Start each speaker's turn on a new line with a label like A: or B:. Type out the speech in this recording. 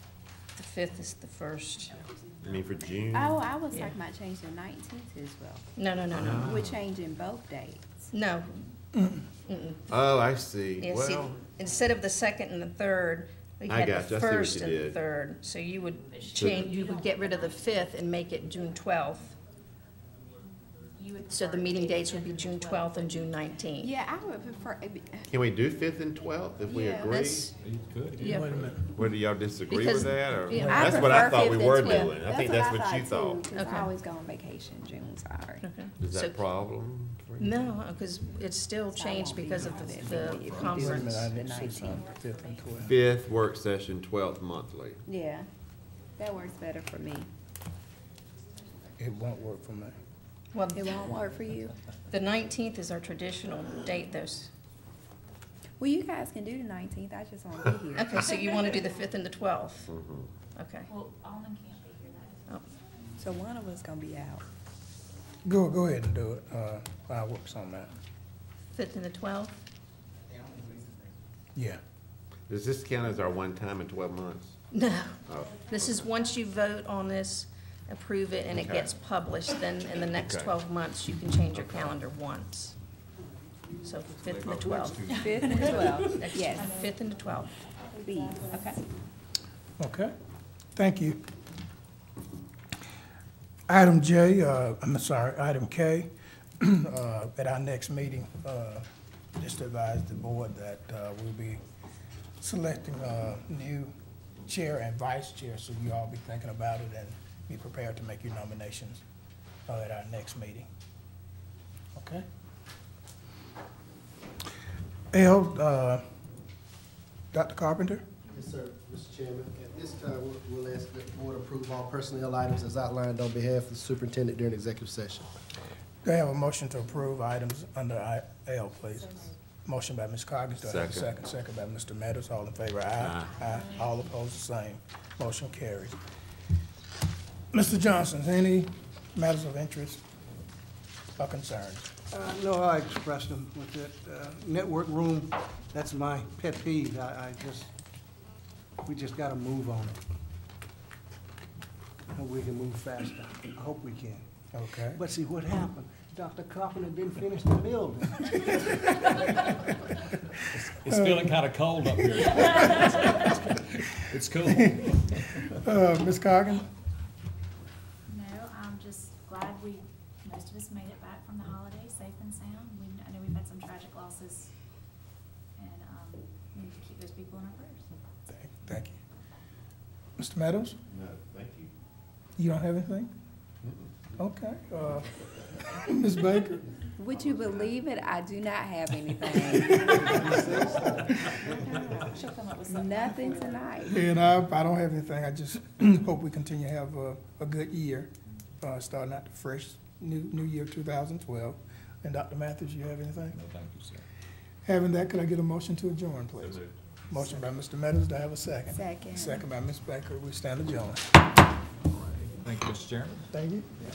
A: fifth is the first.
B: I mean, for June.
C: Oh, I was
A: Yeah.
C: talking about changing the nineteenth as well.
A: No, no, no,
B: Ah.
A: no,
C: We're changing both dates.
A: no.
B: Oh, I see.
A: Yeah, see,
B: Well,
A: instead of the second and the third, we
B: I
A: had
B: got you.
A: the
B: I see what
A: first
B: you
A: and the
B: did.
A: third. So you would change, you would get rid of the fifth and make it June twelfth. So the meeting dates would be June twelfth and June nineteenth.
C: Yeah, I would prefer, it'd be-
B: can we do fifth and twelfth if we
C: Yeah,
B: agree?
D: You could.
A: Yeah.
E: Wait a minute.
B: Whether y'all disagree
A: Because-
B: with that or?
A: yeah,
C: I
B: That's what I
C: prefer
B: thought we
C: fifth and
B: were
C: twelfth.
B: doing. I think that's what you
C: too,
B: thought.
C: 'cause
A: Okay.
C: I always go on vacation June, sorry.
B: Is that
A: So-
B: a problem? for you?
A: No, because it's still changed because of the- Uh, the
E: Wait a minute,
A: conference.
E: I didn't see something, fifth and twelfth.
B: Fifth work session, twelfth monthly.
C: Yeah, that works better for me.
E: It won't work for me.
A: Well,
C: It won't work for you?
A: the nineteenth is our traditional date, those.
C: Well, you guys can do the nineteenth, I just won't be here.
A: Okay, so you want to do the fifth and the twelfth?
B: Mm-hmm.
A: Okay.
F: Well, Alden can't be here, that
A: Oh,
C: So one of us gonna be out.
E: Go, go ahead and do it, uh, I'll work on that,
A: Fifth and the twelfth?
E: yeah.
B: Does this count as our one time in twelve months?
A: No.
B: Oh,
A: This is once you vote on this, approve it, and it
B: Okay.
A: gets published, then in the next
B: Okay.
A: twelve months, you can change your calendar once. So
B: oh,
A: fifth and the twelfth.
C: Fifth and twelfth,
A: Next-
C: yes,
A: Fifth and the twelfth.
C: please.
A: Okay.
E: Okay, thank you. Item J, uh, I'm sorry, item K, uh, at our next meeting, uh, just advise the board that uh, we'll be selecting a new chair and vice chair, so you all be thinking about it and be prepared to make your nominations uh, at our next meeting. Okay? L, uh, Dr. Carpenter?
G: Yes, sir, Mr. Chairman. At this time, we'll- we'll ask that the board approve all personnel items as outlined on behalf of the superintendent during executive session.
E: Do I have a motion to approve items under I- L, please? Motion by Ms. Coggins, do I have a
B: Second.
E: second? Second by Mr. Meadows, all in favor, aye. Aye. All opposed, the same. Motion carries. Mr. Johnson, any matters of interest or concerns?
H: Uh, No, I expressed them with that uh, network room, that's my pet peeve. I, I just, we just gotta move on it. And we can move faster. I hope we can.
E: Okay.
H: But see what happened? Dr. Carpenter didn't finish the building.
D: It's feeling kind of cold up here. It's cool.
E: Uh, Ms. Coggins?
F: is. No, I'm just glad we, most of us made it back from the holiday safe and sound. We, I know we've had some tragic losses, and, um, we need to keep those people in our prayers.
E: Thank- Thank you. Mr. Meadows,
B: No, thank you.
E: you don't have anything? Okay. uh, Ms. Baker?
C: Would you believe it? I do not have anything.
F: She'll come up with
C: Nothing tonight.
E: And I, I don't have anything, I just hope we continue to have a, a good year, uh, starting out the fresh, new, new year two thousand twelve. And Dr. Mathis, you have anything?
D: No, thank you, sir.
E: Having that, could I get a motion to adjourn, please? Motion by Mr. Meadows, do I have a second?
C: Second.
E: Second by Ms. Baker, we stand adjourned.
D: Thank you, Mr. Chairman.
E: Thank you.